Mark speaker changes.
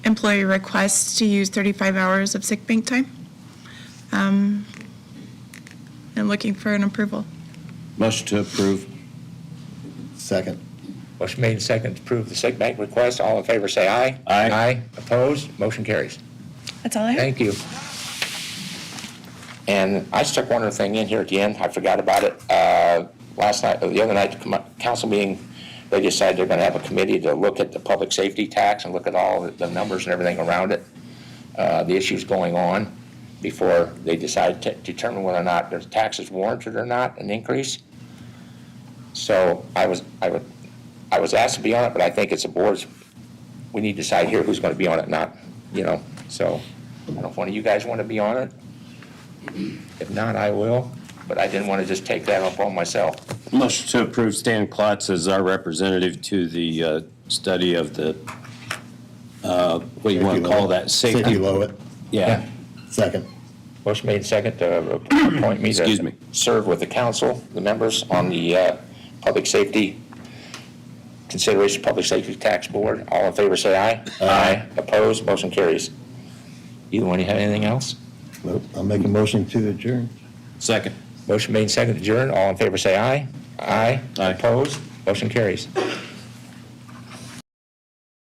Speaker 1: employee requests to use 35 hours of sick bank time. Um, And looking for an approval.
Speaker 2: Motion to approve. Second.
Speaker 3: Motion made and seconded to approve the sick bank request. All in favor, say aye.
Speaker 2: Aye.
Speaker 3: Aye. Opposed? Motion carries.
Speaker 1: That's all I have.
Speaker 3: Thank you. And I stuck one other thing in here at the end. I forgot about it. Uh, Last night, the other night, the com- council meeting, they decided they're going to have a committee to look at the public safety tax and look at all the numbers and everything around it, uh, the issues going on, before they decide to determine whether or not their tax is warranted or not, an increase. So I was, I would, I was asked to be on it, but I think it's the board's, we need to decide here who's going to be on it, not, you know, so. I don't know if one of you guys want to be on it. If not, I will, but I didn't want to just take that up on myself.
Speaker 2: Motion to approve Stan Klotz as our representative to the uh, study of the, uh, what do you want to call that?
Speaker 4: Safety
Speaker 2: Safety,
Speaker 4: Lowit,
Speaker 2: yeah.
Speaker 4: second.
Speaker 3: Motion made second to appoint me
Speaker 2: Excuse
Speaker 3: to
Speaker 2: me.
Speaker 3: serve with the council, the members on the uh, Public Safety Consideration Public Safety Tax Board. All in favor, say aye. Aye. Opposed, motion carries. Either one, you have anything else?
Speaker 4: Nope, I'll make a motion to adjourn.
Speaker 2: Second.
Speaker 3: Motion made second to adjourn. All in favor, say aye. Aye.
Speaker 2: Aye.
Speaker 3: Opposed, motion carries.